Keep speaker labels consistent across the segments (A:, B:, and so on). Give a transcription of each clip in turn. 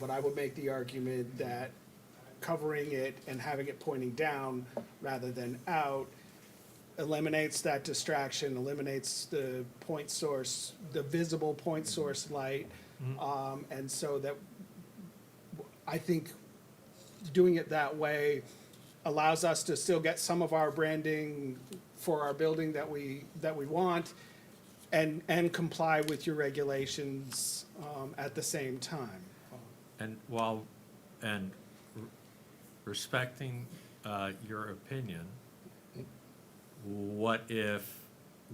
A: but I would make the argument that covering it and having it pointing down rather than out eliminates that distraction, eliminates the point source, the visible point source light. Um, and so that, I think doing it that way allows us to still get some of our branding for our building that we, that we want and, and comply with your regulations, um, at the same time.
B: And while, and r- respecting uh, your opinion, what if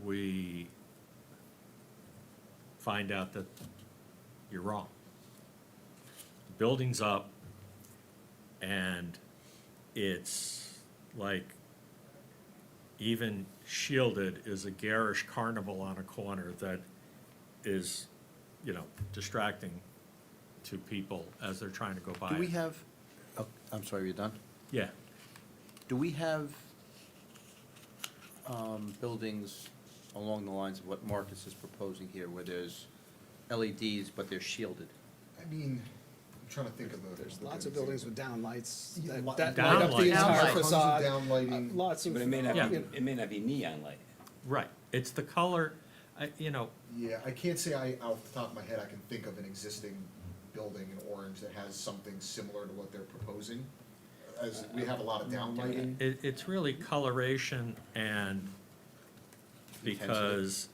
B: we find out that you're wrong? Building's up, and it's like, even shielded is a garish carnival on a corner that is, you know, distracting to people as they're trying to go by.
C: Do we
B: it.
C: have, oh, I'm sorry, are you done?
B: Yeah,
C: Do we have um, buildings along the lines of what Marcus is proposing here, where there's LEDs, but they're shielded?
D: I mean, I'm trying to think of a.
A: There's lots of buildings with downlights
D: Yeah,
A: that,
D: lot-
A: that light up the
B: Downlights.
A: entire
E: Downlights.
A: facade.
D: Downlighting.
A: Uh, Lots of.
F: But it may not,
B: Yeah.
F: be it may not be neon light.
B: right. It's the color, I- you know,
D: Yeah, I can't say I, off the top of my head, I can think of an existing building in Orange that has something similar to what they're proposing. As, we have a lot of downlighting.
B: it, it's really coloration and because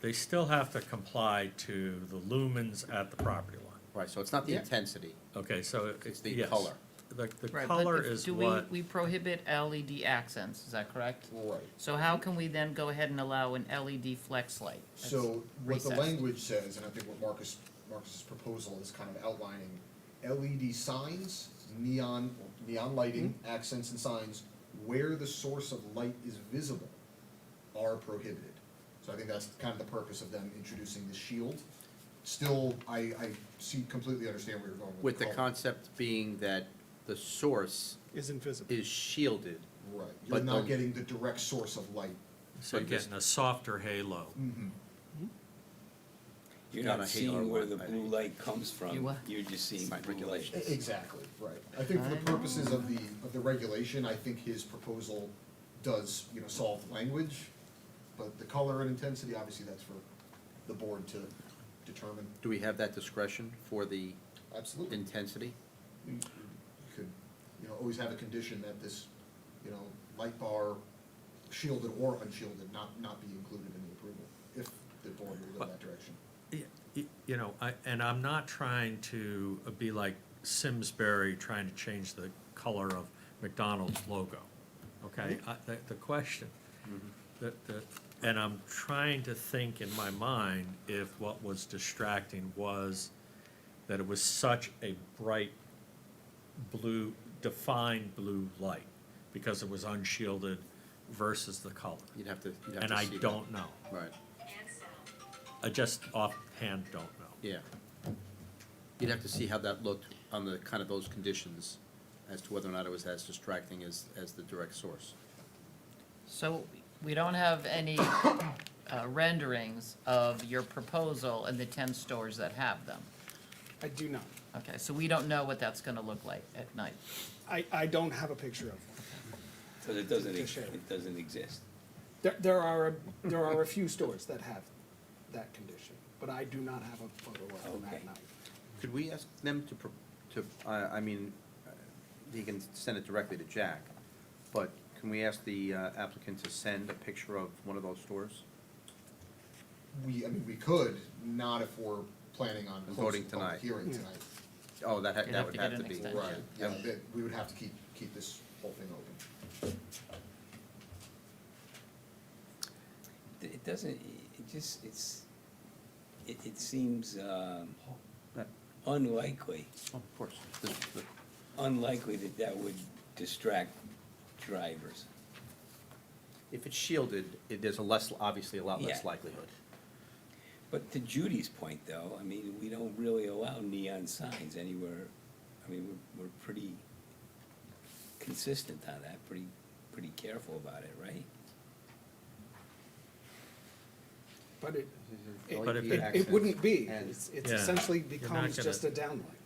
B: they still have to comply to the lumens at the property line.
C: Right, so it's not the
A: Yeah.
C: intensity.
B: Okay, so it-
C: It's the
B: yes.
C: color.
B: The, the
E: Right, but
B: color
E: if-
B: is
E: do we-
B: what,
E: We prohibit LED accents, is that correct?
D: Right.
E: So how can we then go ahead and allow an LED flex light? That's
D: So what the
E: recessed.
D: language says, and I think what Marcus, Marcus's proposal is kind of outlining, LED signs, neon, neon lighting, accents and signs, where the source of light is visible are prohibited. So I think that's kind of the purpose of them introducing the shield. Still, I, I see, completely understand where you're going with
C: With
D: the
C: the
D: color.
C: concept being that the source
A: Is invisible.
C: is shielded.
D: Right, you're
C: but
D: not
C: the-
D: getting the direct source of light.
B: so you're
C: but this-
B: getting a softer halo.
F: You're
C: Not a
F: not
C: halo
F: seeing where the
C: light, I
F: blue
C: think.
F: light comes
E: You
F: from,
E: what?
F: you're just seeing
C: Sign
F: blue light.
C: regulations.
D: Exactly, right. I think for the
E: I know.
D: purposes of the, of the regulation, I think his proposal does, you know, solve the language, but the color and intensity, obviously, that's for the board to determine.
C: Do we have that discretion for the
D: Absolutely.
C: intensity?
D: You could, you know, always have a condition that this, you know, light bar shielded or unshielded, not, not be included in the approval, if the board will go that direction.
B: Y- y- You know, I, and I'm not trying to be like Simsbury trying to change the color of McDonald's logo, okay?
C: Mm-hmm.
B: I- The, the question, the, the, and I'm trying to think in my mind if what was distracting was that it was such a bright blue, defined blue light, because it was unshielded versus the color.
C: You'd have to, you'd have to see.
B: And I
C: that.
B: don't know.
C: Right,
B: I just offhand don't know.
C: yeah. You'd have to see how that looked on the, kind of those conditions, as to whether or not it was as distracting as, as the direct source.
E: So we don't have any uh, renderings of your proposal and the ten stores that have them.
A: I do not.
E: Okay, so we don't know what that's gonna look like at night.
A: I, I don't have a picture of one.
F: So it doesn't,
A: Just
F: ex-
A: shade.
F: it doesn't exist.
A: There, there are, a- there are a few stores that have that condition, but I do not have a photo of them that
F: Okay.
A: night.
C: Could we ask them to, pro- to, I, I mean, uh, he can send it directly to Jack, but can we ask the uh, applicant to send a picture of one of those stores?
D: We, I mean, we could, not if we're planning on
C: And
D: closing
C: voting
D: the
C: tonight.
D: public hearing
A: Yeah.
D: tonight.
C: Oh, that, ha-
E: You'd
C: that would
E: get
C: have to
E: an
C: be.
E: extension.
D: Right, yeah,
C: Yeah.
D: that, we would have to keep, keep this whole thing open.
F: It- It doesn't, it just, it's, it, it seems um,
C: Yeah, Oh,
F: unlikely,
C: Of course. The- the-
F: unlikely that that would distract drivers.
C: If it's shielded, it, there's a less, obviously a lot
F: Yeah.
C: less likelihood.
F: But to Judy's point, though, I mean, we don't really allow neon signs anywhere. I mean, we're, we're pretty consistent on that, pretty, pretty careful about it, right?
A: But it, it,
B: But if
A: it- it wouldn't be.
C: And-
A: It's it's
B: Yeah.
A: essentially
B: You're not
A: becomes
B: gonna-
A: just a downlight.